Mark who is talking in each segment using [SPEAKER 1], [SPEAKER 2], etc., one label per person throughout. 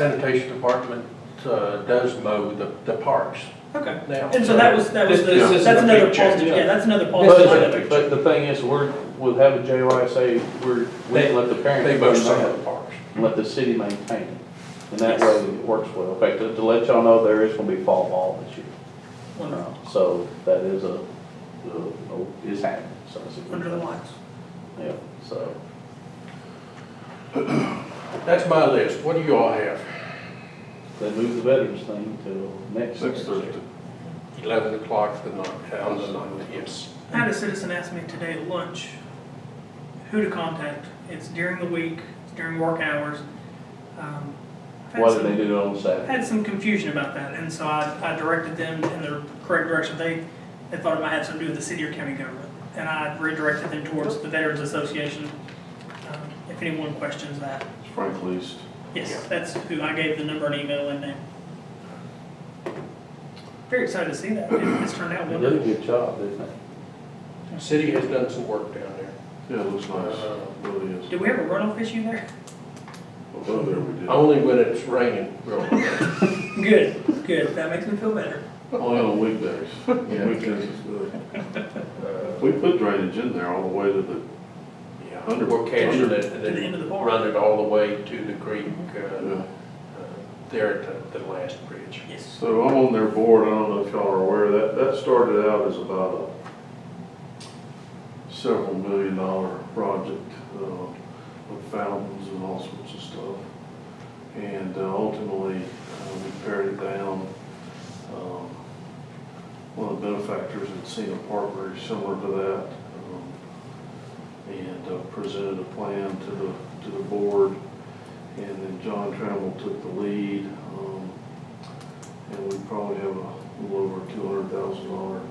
[SPEAKER 1] Sanitation department uh, does mow the, the parks
[SPEAKER 2] Okay.
[SPEAKER 1] now.
[SPEAKER 2] And so that was, that was,
[SPEAKER 3] This- this
[SPEAKER 2] the-
[SPEAKER 3] is
[SPEAKER 2] that's
[SPEAKER 3] the
[SPEAKER 2] another
[SPEAKER 3] picture,
[SPEAKER 2] positive,
[SPEAKER 3] yeah.
[SPEAKER 2] yeah, that's another positive side of
[SPEAKER 3] But,
[SPEAKER 2] it.
[SPEAKER 3] but the thing is, we're, we'll have a JYSA, we're, we
[SPEAKER 1] They-
[SPEAKER 3] let the
[SPEAKER 1] They
[SPEAKER 3] parents
[SPEAKER 1] mow
[SPEAKER 3] vote
[SPEAKER 1] some
[SPEAKER 3] on
[SPEAKER 1] of
[SPEAKER 3] it,
[SPEAKER 1] the parks.
[SPEAKER 3] and let the city maintain it. And that
[SPEAKER 2] Yes.
[SPEAKER 3] way it works well. In fact, to, to let y'all know, there is gonna be fall ball this year.
[SPEAKER 2] Wonderful.
[SPEAKER 3] So that is a, a- is happening, so. it's a good
[SPEAKER 2] Under the
[SPEAKER 3] thing.
[SPEAKER 2] lights.
[SPEAKER 3] Yeah, so.
[SPEAKER 1] That's my list. What do you all have?
[SPEAKER 3] They moved the veterans thing till next
[SPEAKER 4] Next
[SPEAKER 3] Thursday.
[SPEAKER 4] Thursday.
[SPEAKER 1] Eleven o'clock the night, on the night, yes.
[SPEAKER 2] I had a citizen ask me today at lunch who to contact. It's during the week, it's during work hours. Um, I've had
[SPEAKER 3] Why did
[SPEAKER 2] some-
[SPEAKER 3] they do it on
[SPEAKER 2] I
[SPEAKER 3] Saturday?
[SPEAKER 2] had some confusion about that, and so I, I directed them in the correct direction. They, they thought it might have something to do with the city or county government, and I redirected them towards the Veterans Association. Um, If anyone questions that,
[SPEAKER 4] Frank Least.
[SPEAKER 2] yes, that's who I gave the number and email and name. Very excited to see that. It- It's turned out
[SPEAKER 3] They did a
[SPEAKER 2] wonderful.
[SPEAKER 3] good job, didn't they?
[SPEAKER 1] City has done some work down there.
[SPEAKER 4] Yeah, it looks nice.
[SPEAKER 1] Uh,
[SPEAKER 4] Really is.
[SPEAKER 2] Did we have a runoff issue there?
[SPEAKER 4] Over there we did.
[SPEAKER 1] Only when it's raining, really.
[SPEAKER 2] Good, good. That makes me feel better.
[SPEAKER 4] Only on weekdays.
[SPEAKER 1] Yeah.
[SPEAKER 4] Weekdays is good.
[SPEAKER 1] Uh,
[SPEAKER 4] We put drainage in there all the way to the,
[SPEAKER 1] yeah, We're catching it and
[SPEAKER 2] To the end of
[SPEAKER 1] then
[SPEAKER 2] the park.
[SPEAKER 1] run it all the way to the creek, uh,
[SPEAKER 4] yeah.
[SPEAKER 1] uh, there at the, the last bridge.
[SPEAKER 2] Yes.
[SPEAKER 4] So I'm on their board, I don't know if y'all are aware, that, that started out as about a several million dollar project, uh, with fountains and all sorts of stuff. And uh, ultimately, uh, we pared it down. Um, One of the benefactors had seen a park very similar to that, um, and uh, presented a plan to the, to the board. And then John Trammell took the lead, um, and we probably have a little over two hundred thousand dollar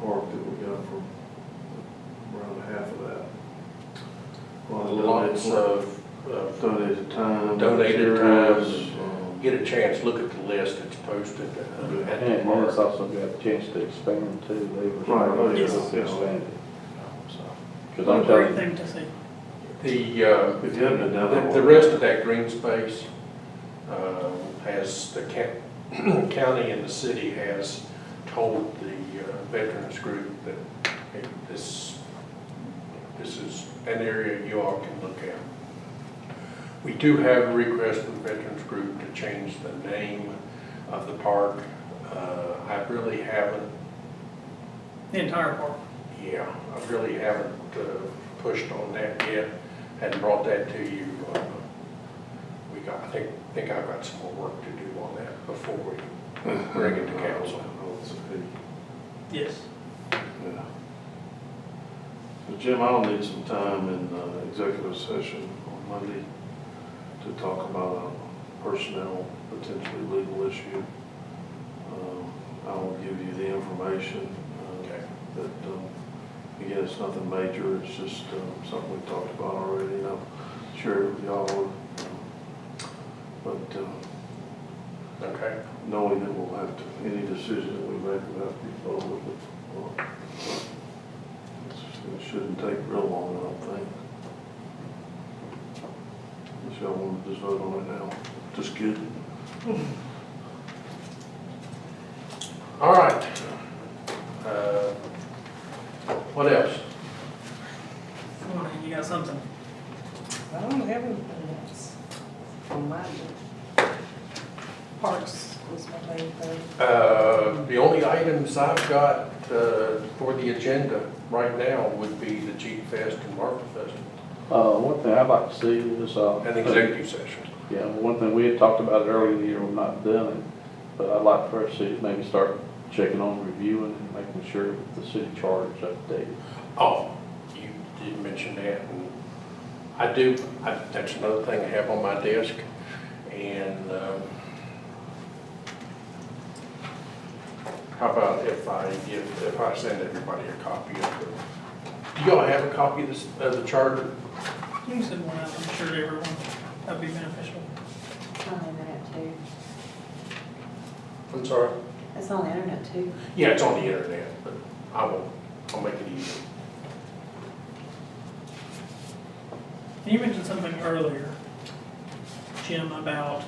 [SPEAKER 4] park that we got from around half of that. Well,
[SPEAKER 1] Lots of, uh,
[SPEAKER 4] Donated time.
[SPEAKER 1] Donated time.
[SPEAKER 4] materials, um,
[SPEAKER 1] get a chance, look at the list that's posted uh, at the
[SPEAKER 3] And
[SPEAKER 1] park.
[SPEAKER 3] it's also got a chance to expand too. They
[SPEAKER 4] Right, oh,
[SPEAKER 3] were.
[SPEAKER 4] yeah, yeah.
[SPEAKER 3] Expanded.
[SPEAKER 4] so.
[SPEAKER 3] Cause I'm telling
[SPEAKER 2] Great
[SPEAKER 3] you,
[SPEAKER 2] thing to see.
[SPEAKER 1] The, uh,
[SPEAKER 4] If you haven't been down
[SPEAKER 1] The
[SPEAKER 4] there.
[SPEAKER 1] the rest of that green space uh, has, the ca- county and the city has told the uh, veterans group that hey, this, this is an area you all can look at. We do have a request from the veterans group to change the name of the park. Uh, I really haven't,
[SPEAKER 2] The entire park.
[SPEAKER 1] yeah, I really haven't uh, pushed on that yet, hadn't brought that to you. uh, We got, I think, think I've got some more work to do on that before we bring it to council.
[SPEAKER 2] Yes.
[SPEAKER 4] Yeah. So Jim, I'll need some time in uh, executive session on Monday to talk about a personnel, potentially legal issue. Um, I will give you the information uh,
[SPEAKER 1] Okay.
[SPEAKER 4] that, um, again, it's nothing major, it's just um, something we talked about already, and I'm sure y'all would. um, But um,
[SPEAKER 1] Okay,
[SPEAKER 4] knowing that we'll have to, any decision that we make will have to be followed. but, uh, It shouldn't take real long, I don't think. If y'all want to just vote on it now, just kidding.
[SPEAKER 1] all right. Uh, What else?
[SPEAKER 2] Come on, you got something.
[SPEAKER 5] I don't have anything else on my agenda. Parks was my main thing.
[SPEAKER 1] Uh, The only items I've got uh, for the agenda right now would be the Jeep Fest and Marfa Festival
[SPEAKER 3] uh, one thing I'd like to see is, uh.
[SPEAKER 1] and executive session.
[SPEAKER 3] Yeah, one thing, we had talked about it earlier in the year, we've not done it, but I'd like for us to maybe start checking on reviewing and making sure that the city charter is updated.
[SPEAKER 1] Oh, you did mention that, and I do, I, that's another thing I have on my desk, and, um, how about if I give, if I send everybody a copy of the, do y'all have a copy of this, of the charter?
[SPEAKER 2] You can send one out, I'm sure to everyone. That'd be beneficial.
[SPEAKER 5] It's on the internet too.
[SPEAKER 1] I'm sorry?
[SPEAKER 5] It's on the internet too.
[SPEAKER 1] Yeah, it's on the internet, but I will, I'll make it easy.
[SPEAKER 2] You mentioned something earlier, Jim, about